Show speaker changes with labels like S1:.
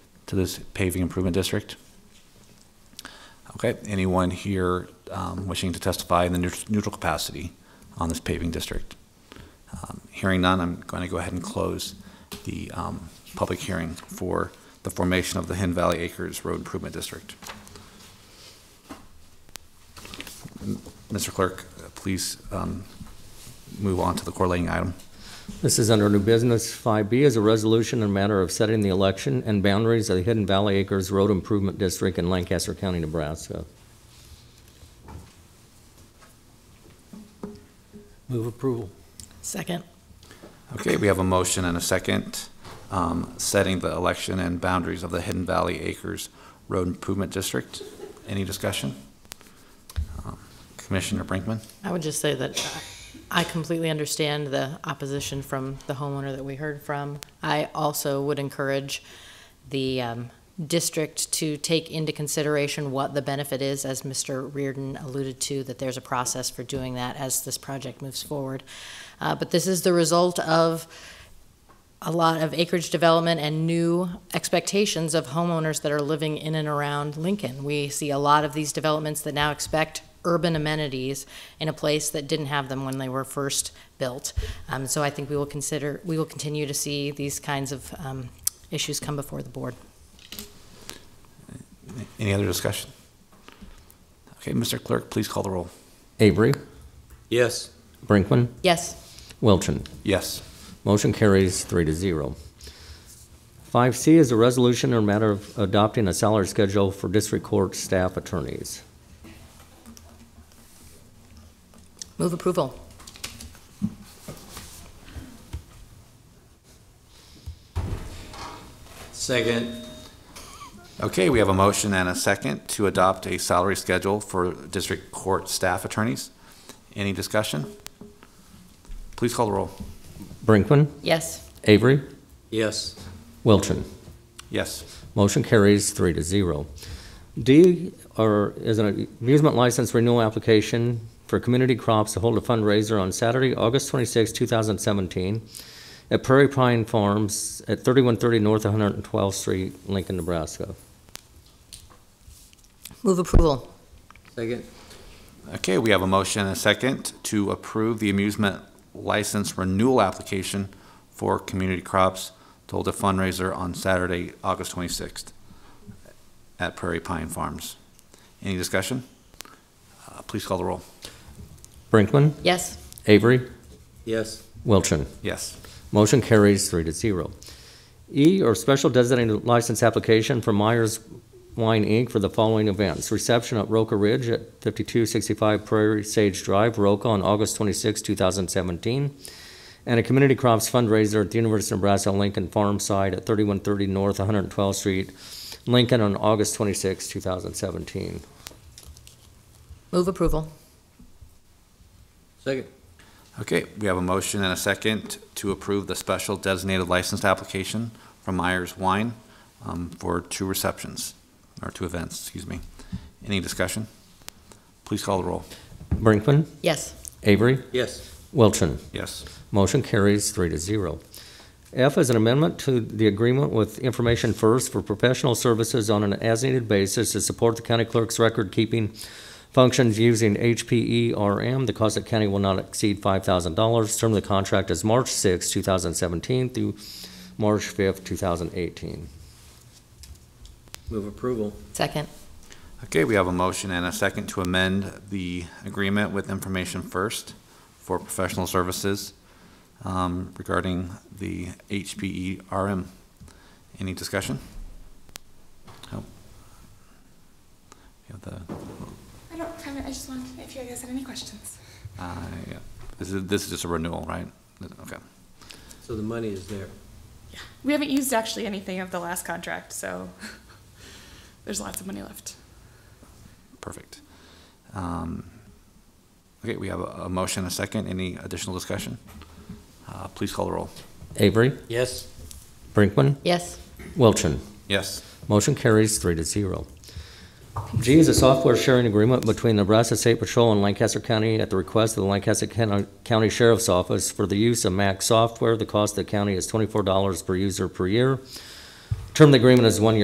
S1: to this paving improvement district? Okay, anyone here um, wishing to testify in the neut- neutral capacity on this paving district? Um, Hearing none, I'm going to go ahead and close the um, public hearing for the formation of the Hin Valley Acres Road Improvement District. Mr. Clerk, uh, please um, move on to the correlating item.
S2: This is under new business. 5B is a resolution in a matter of setting the election and boundaries of the Hidden Valley Acres Road Improvement District in Lancaster County, Nebraska. Move approval.
S3: Second.
S1: Okay, we have a motion and a second, um, setting the election and boundaries of the Hidden Valley Acres Road Improvement District. Any discussion? Um, Commissioner Brinkman?
S3: I would just say that I completely understand the opposition from the homeowner that we heard from. I also would encourage the um, district to take into consideration what the benefit is, as Mr. Reardon alluded to, that there's a process for doing that as this project moves forward. Uh, But this is the result of a lot of acreage development and new expectations of homeowners that are living in and around Lincoln. We see a lot of these developments that now expect urban amenities in a place that didn't have them when they were first built. Um, so I think we will consider, we will continue to see these kinds of um, issues come before the board.
S1: Any other discussion? Okay, Mr. Clerk, please call the roll.
S2: Avery,
S4: Yes.
S2: Brinkman,
S3: Yes,
S2: Wilchin.
S1: Yes.
S2: Motion carries three to zero. 5C is a resolution in a matter of adopting a salary schedule for district court staff attorneys.
S3: move approval.
S4: Second.
S1: Okay, we have a motion and a second to adopt a salary schedule for district court staff attorneys. Any discussion? Please call the roll.
S2: Brinkman,
S3: Yes,
S2: Avery,
S4: Yes.
S2: Wilchin.
S1: Yes.
S2: Motion carries three to zero. D are, is an amusement license renewal application for Community Crops to hold a fundraiser on Saturday, August 26, 2017, at Prairie Pine Farms at 3130 North 112th Street, Lincoln, Nebraska.
S3: move approval.
S4: Second.
S1: Okay, we have a motion and a second to approve the amusement license renewal application for Community Crops to hold a fundraiser on Saturday, August 26th at Prairie Pine Farms. Any discussion? Uh, Please call the roll.
S2: Brinkman,
S3: Yes,
S2: Avery,
S4: Yes.
S2: Wilchin.
S1: Yes.
S2: Motion carries three to zero. E or special designated license application for Myers Wine Inc. for the following events. Reception at Roca Ridge at 5265 Prairie Sage Drive, Roca, on August 26, 2017. And a community crops fundraiser at the University of Nebraska Lincoln Farm site at 3130 North 112th Street, Lincoln, on August 26, 2017.
S3: move approval.
S4: Second.
S1: Okay, we have a motion and a second to approve the special designated license application from Myers Wine um, for two receptions, or two events, excuse me. Any discussion? Please call the roll.
S2: Brinkman,
S3: Yes,
S2: Avery,
S4: Yes.
S2: Wilchin.
S1: Yes.
S2: Motion carries three to zero. F is an amendment to the agreement with Information First for professional services on an as-needed basis to support the county clerk's record-keeping functions using HPERM. The cost of county will not exceed $5,000. Term of the contract is March 6, 2017 through March 5, 2018.
S4: Move approval.
S3: second.
S1: Okay, we have a motion and a second to amend the agreement with Information First for professional services um, regarding the HPE RM. Any discussion? No. We have the,
S5: I don't have it. I just wanted if you guys had any questions.
S1: uh, yeah. This is, this is just a renewal, right? Okay.
S4: So the money is there.
S5: We haven't used actually anything of the last contract, so there's lots of money left.
S1: Perfect. Um, Okay, we have a a motion, and a second. Any additional discussion? Uh, Please call the roll.
S2: Avery,
S4: Yes.
S2: Brinkman,
S3: Yes,
S2: Wilchin.
S1: Yes.
S2: Motion carries three to zero. G is a software sharing agreement between Nebraska State Patrol and Lancaster County at the request of the Lancaster County County Sheriff's Office for the use of Mac software. The cost to the county is twenty-four dollars per user per year. Term of the agreement is one year.